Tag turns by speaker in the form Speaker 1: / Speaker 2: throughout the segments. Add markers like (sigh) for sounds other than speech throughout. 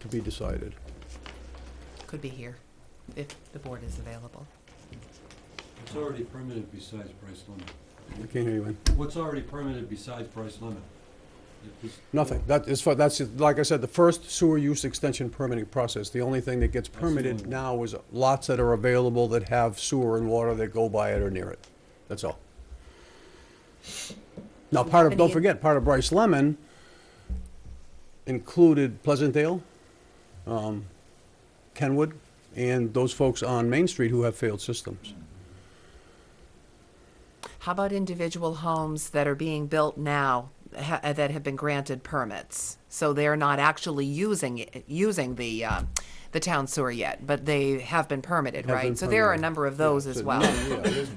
Speaker 1: to be decided.
Speaker 2: Could be here, if the board is available.
Speaker 3: What's already permitted besides price limit?
Speaker 1: I can't hear you, Ann.
Speaker 3: What's already permitted besides price limit? If this-
Speaker 1: Nothing. That is, fu- that's, like I said, the first sewer use extension permitting process. The only thing that gets
Speaker 3: the only
Speaker 1: permitted
Speaker 3: one.
Speaker 1: now is lots that are available that have sewer and water that go by it or near it. That's all. Now, part of, don't
Speaker 2: Any-
Speaker 1: forget, part of Bryce Lemon included Pleasantdale, um, Kenwood, and those folks on Main Street who have failed systems.
Speaker 2: How about individual homes that are being built now ha- uh, that have been granted permits? So they're not actually using, it- using the, uh, the town sewer yet, but they have been permitted,
Speaker 1: Have been
Speaker 2: right? So there are a
Speaker 1: permitted.
Speaker 2: number of those
Speaker 1: Yeah,
Speaker 2: as
Speaker 1: so-
Speaker 2: well.
Speaker 1: yeah, there's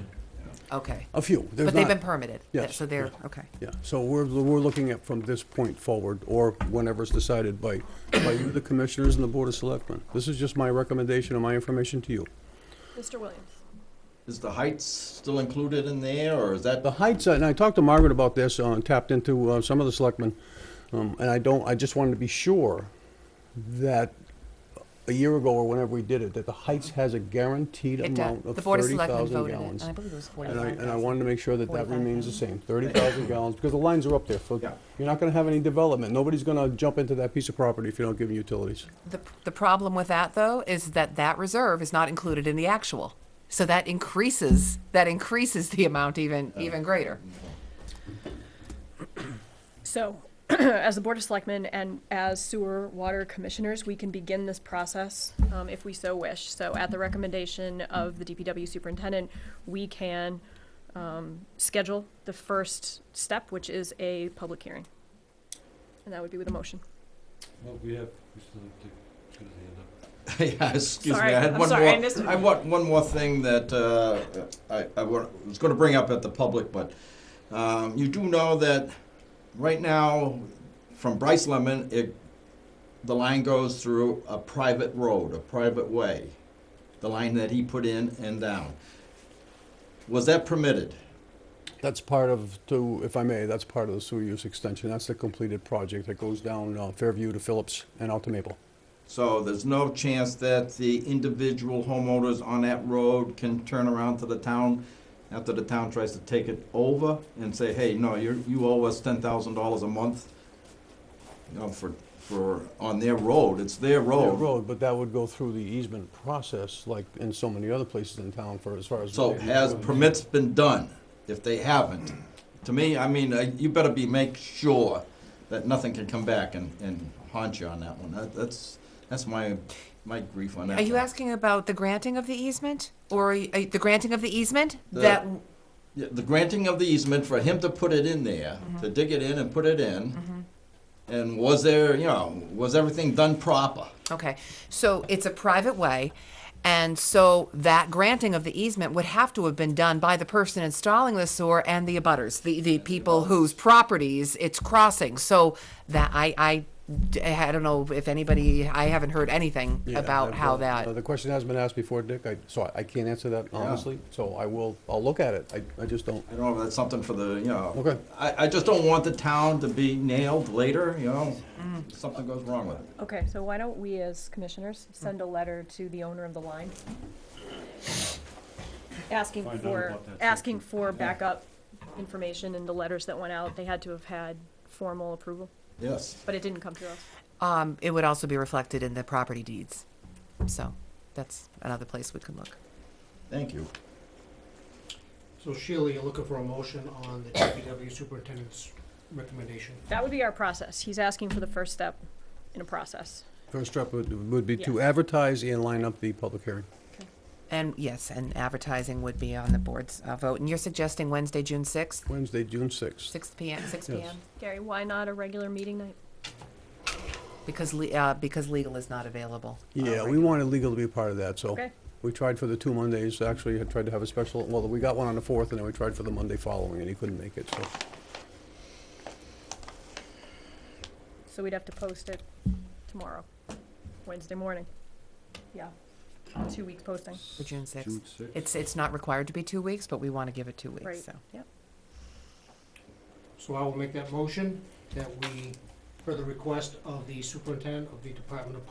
Speaker 2: Okay.
Speaker 1: A few. There's
Speaker 2: But they've
Speaker 1: not-
Speaker 2: been permitted?
Speaker 1: Yes,
Speaker 2: So they're,
Speaker 1: yeah.
Speaker 2: okay.
Speaker 1: Yeah, so we're, we're looking at from this point forward, or whenever it's decided by, by you, the commissioners, and the Board of Selectmen. This is just my recommendation and my information to you.
Speaker 4: Mr. Williams.
Speaker 5: Is the heights still included in there, or is that?
Speaker 1: The heights, and I talked to Margaret about this, uh, tapped into, uh, some of the selectmen, um, and I don't, I just wanted to be sure that a year ago or whenever we did it, that the heights has a guaranteed
Speaker 2: It, uh,
Speaker 1: amount of
Speaker 2: The Board of
Speaker 1: thirty
Speaker 2: Selectmen
Speaker 1: thousand
Speaker 2: voted it, and
Speaker 1: gallons.
Speaker 2: I believe it was forty-five
Speaker 1: And I,
Speaker 2: thousand.
Speaker 1: and I wanted to make sure that that
Speaker 2: 45,000.
Speaker 1: remains the same, thirty thousand gallons, because the lines are up there for,
Speaker 5: Yeah.
Speaker 1: you're not gonna have any development, nobody's gonna jump into that piece of property if you don't give them utilities.
Speaker 2: The, the problem with that, though, is that that reserve is not included in the actual. So that increases, that increases the amount even, even greater.
Speaker 4: So, (clears throat) as the Board of Selectmen and as sewer water commissioners, we can begin this process um, if we so wish. So at the recommendation of the DPW superintendent, we can um, schedule the first step, which is a public hearing. And that would be with a motion.
Speaker 3: Well, we have, we still have to get his hand up.
Speaker 5: (laughs) Yeah, excuse me,
Speaker 4: Sorry,
Speaker 5: I had
Speaker 4: I'm
Speaker 5: one
Speaker 4: sorry, I
Speaker 5: more,
Speaker 4: missed it.
Speaker 5: I want one more thing that, uh, I, I wa- was gonna bring up at the public, but, um, you do know that right now, from Bryce Lemon, it, the line goes through a private road, a private way, the line that he put in and down. Was that permitted?
Speaker 1: That's part of, to, if I may, that's part of the sewer use extension, that's the completed project that goes down uh, Fairview to Phillips and out to Maple.
Speaker 5: So there's no chance that the individual homeowners on that road can turn around to the town after the town tries to take it over and say, hey, no, you, you owe us ten thousand dollars a month? You know, for, for, on their road, it's their
Speaker 1: Yeah,
Speaker 5: road.
Speaker 1: Road, but that would go through the easement process, like in so many other places in town for, as far as.
Speaker 5: So has permits been done? If they haven't, to me, I mean, uh, you better be, make sure that nothing can come back and, and haunt you on that one. That, that's, that's my, my grief on that.
Speaker 2: Are you
Speaker 5: one.
Speaker 2: asking about the granting of the easement? Or are you- are you- the granting of the easement?
Speaker 5: The-
Speaker 2: That,
Speaker 5: Yeah, the granting of the easement for him to put it in there, to dig it in and put it in. And was there, you know, was everything done proper?
Speaker 2: okay, so it's a private way, and so that granting of the easement would have to have been done by the person installing the sewer and the abutters, the, the people whose properties it's crossing. So that, I, I, I don't know if anybody, I haven't heard anything
Speaker 1: Yeah,
Speaker 2: about
Speaker 1: I've,
Speaker 2: how
Speaker 1: uh,
Speaker 2: that.
Speaker 1: uh, The question has been asked before, Dick, I, so I- I can't answer that honestly, so I will, I'll look at it, I, I just don't.
Speaker 5: I don't know if that's something for the, you know.
Speaker 1: Okay.
Speaker 5: I, I just don't want the town to be nailed later, you know, if something goes wrong with it.
Speaker 4: Okay, so why don't we as commissioners send a letter to the owner of the line? Asking
Speaker 3: Find out
Speaker 4: for,
Speaker 3: about that
Speaker 4: asking for backup information in the letters that went out, they had to have had formal approval,
Speaker 5: Yes.
Speaker 4: but it didn't come to us.
Speaker 2: Um, it would also be reflected in the property deeds. So that's another place we can look.
Speaker 5: Thank you.
Speaker 6: So Sheila, you're looking for a motion on the DPW superintendent's recommendation.
Speaker 4: That would be our process, he's asking for the first step in a process.
Speaker 1: First step would, would be to
Speaker 4: Yes.
Speaker 1: advertise and line up the public hearing.
Speaker 2: And yes, and advertising would be on the board's uh, vote. And you're suggesting Wednesday, June sixth,
Speaker 1: Wednesday, June sixth.
Speaker 2: six p.m. Six
Speaker 1: Yes.
Speaker 2: p.m.
Speaker 4: Gary, why not a regular meeting night?
Speaker 2: because le- uh, because legal is not available. uh,
Speaker 1: Yeah,
Speaker 2: right
Speaker 1: we wanted legal to be a part of
Speaker 3: Oh.
Speaker 1: that, so.
Speaker 4: Okay,
Speaker 1: We tried for the two Mondays, actually, had tried to have a special, well, we got one on the fourth, and then we tried for the Monday following, and he couldn't make it, so.
Speaker 4: so we'd have to post it tomorrow, Wednesday morning, yeah, two week posting,
Speaker 2: For June sixth,
Speaker 3: June sixth.
Speaker 2: it's it's not required to be two weeks, but we want to give it two weeks.
Speaker 4: right,
Speaker 2: So
Speaker 4: yeah.
Speaker 6: So I will make that motion that we, per the request of the superintendent of the Department of